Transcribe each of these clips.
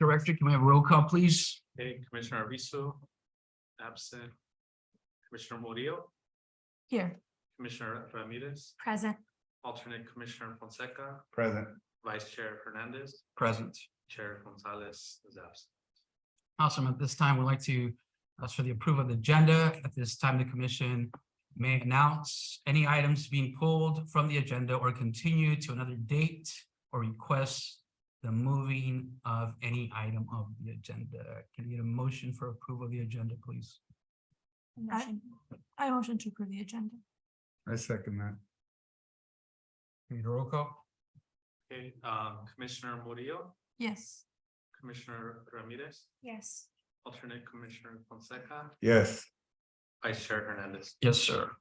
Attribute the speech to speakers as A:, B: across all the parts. A: Director, can we have a roll call, please?
B: Okay, Commissioner Arvizo, absent. Commissioner Murillo,
C: Here,
B: Commissioner Ramirez,
C: present.
B: alternate Commissioner Fonseca,
D: Present.
B: Vice Chair Hernandez,
A: Present.
B: Chair Gonzalez is absent.
A: Awesome. At this time, we'd like to ask for the approval of the agenda. At this time, the commission may announce any items being pulled from the agenda or continue to another date or request the moving of any item of the agenda. Can we get a motion for approval of the agenda, please?
C: I I motion to approve the agenda.
D: I second that.
A: Can we get a roll call?
B: Okay, um, Commissioner Murillo,
C: Yes.
B: Commissioner Ramirez,
C: Yes.
B: alternate Commissioner Fonseca,
D: Yes,
B: Vice Chair Hernandez.
A: Yes, sir.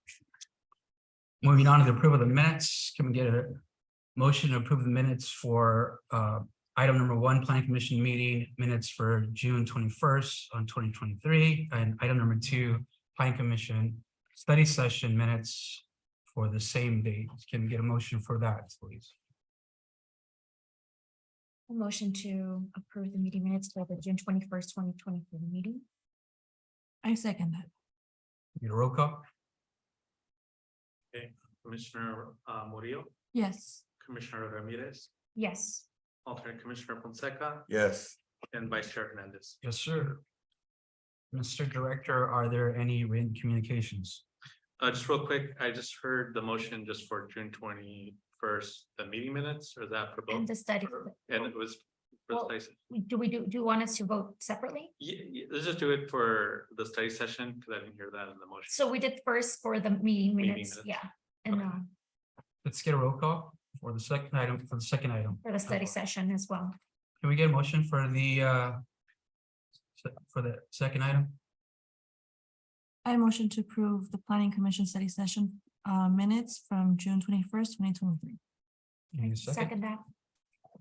A: Moving on to the approval of the minutes, can we get a motion to approve the minutes for uh item number one, planning commission meeting minutes for June twenty-first on twenty twenty-three, and item number two, planning commission study session minutes for the same date. Can we get a motion for that, please?
E: Motion to approve the meeting minutes for the June twenty-first, twenty twenty-three meeting.
C: I second that.
A: Need a roll call?
B: Commissioner uh, Murillo,
C: Yes.
B: Commissioner Ramirez,
E: Yes,
B: alternate Commissioner Fonseca,
D: yes,
B: and Vice Chair Hernandez.
A: Yes, sir. Mr. Director, are there any written communications?
B: Uh, just real quick, I just heard the motion just for June twenty-first, the meeting minutes, or is that for
E: and
B: both?
E: the study,
B: And it was. for
E: Well-
B: study se-
E: do we do, do you want us to vote separately?
B: Ye- ye- let's just do it for the study session, because I didn't hear that in the motion.
E: So we did first for the meeting minutes,
B: minutes.
E: yeah, and
B: Okay.
E: um,
A: Let's get a roll call for the second item, for the second item.
E: for the study
A: Okay.
E: session as well.
A: Can we get a motion for the uh? se- For the second item?
C: I motion to approve the planning commission study session uh minutes from June twenty-first, twenty twenty-three.
A: Give me a
E: Second that,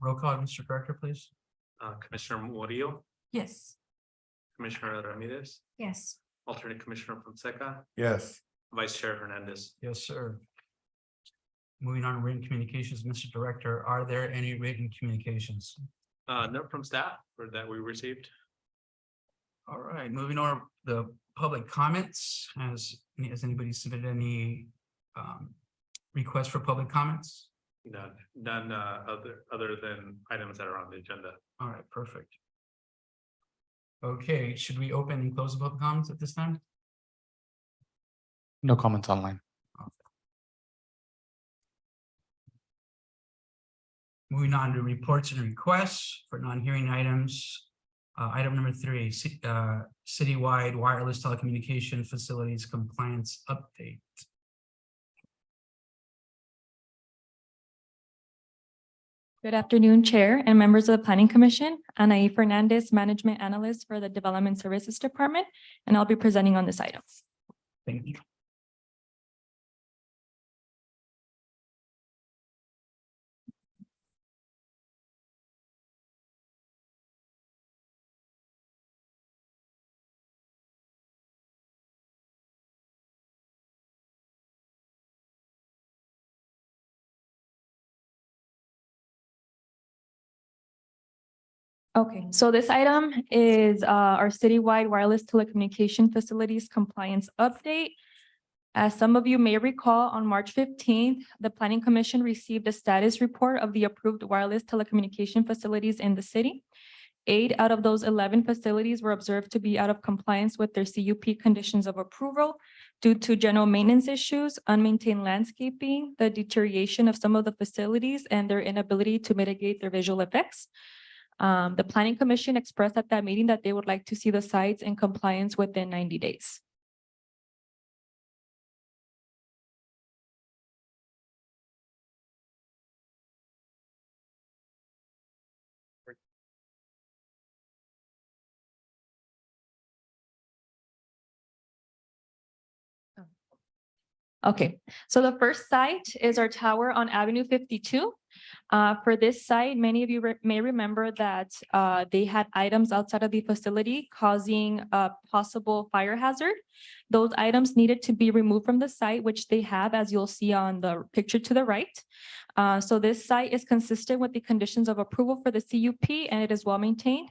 A: Roll call, Mr. Director, please.
B: Uh, Commissioner Murillo,
C: Yes.
B: Commissioner Ramirez,
E: yes,
B: alternate Commissioner Fonseca,
D: yes,
B: Vice Chair Hernandez.
A: Yes, sir. Moving on, to written communications, Mr. Director, are there any written communications?
B: Uh, note from staff or that we received.
A: All right, moving on, to the public comments, has, has anybody submitted any um? Requests for public comments?
B: None, none, uh, other, other than items that are on the agenda.
A: All right, perfect. Okay, should we open and close the public comments at this time?
F: No comments online.
A: Moving on to reports and requests for non-hearing items. Uh, item number three, ci- uh, citywide wireless telecommunication facilities compliance update.
G: Good afternoon, Chair and members of the Planning Commission. Anaí Fernandez, Management Analyst for the Development Services Department, and I'll be presenting on this item.
A: Thank you.
G: Okay, so this item is uh, our citywide wireless telecommunication facilities compliance update. As some of you may recall, on March fifteenth, the Planning Commission received a status report of the approved wireless telecommunication facilities in the city. Eight out of those eleven facilities were observed to be out of compliance with their CUP conditions of approval due to general maintenance issues, unmaintained landscaping, the deterioration of some of the facilities, and their inability to mitigate their visual effects. Um, the planning commission expressed at that meeting that they would like to see the sites in compliance within ninety days. Okay, so the first site is our tower on Avenue fifty-two. Uh, for this site, many of you re- may remember that, uh, they had items outside of the facility causing a possible fire hazard. Those items needed to be removed from the site, which they have, as you'll see on the picture to the right. Uh, so this site is consistent with the conditions of approval for the CUP and it is well maintained.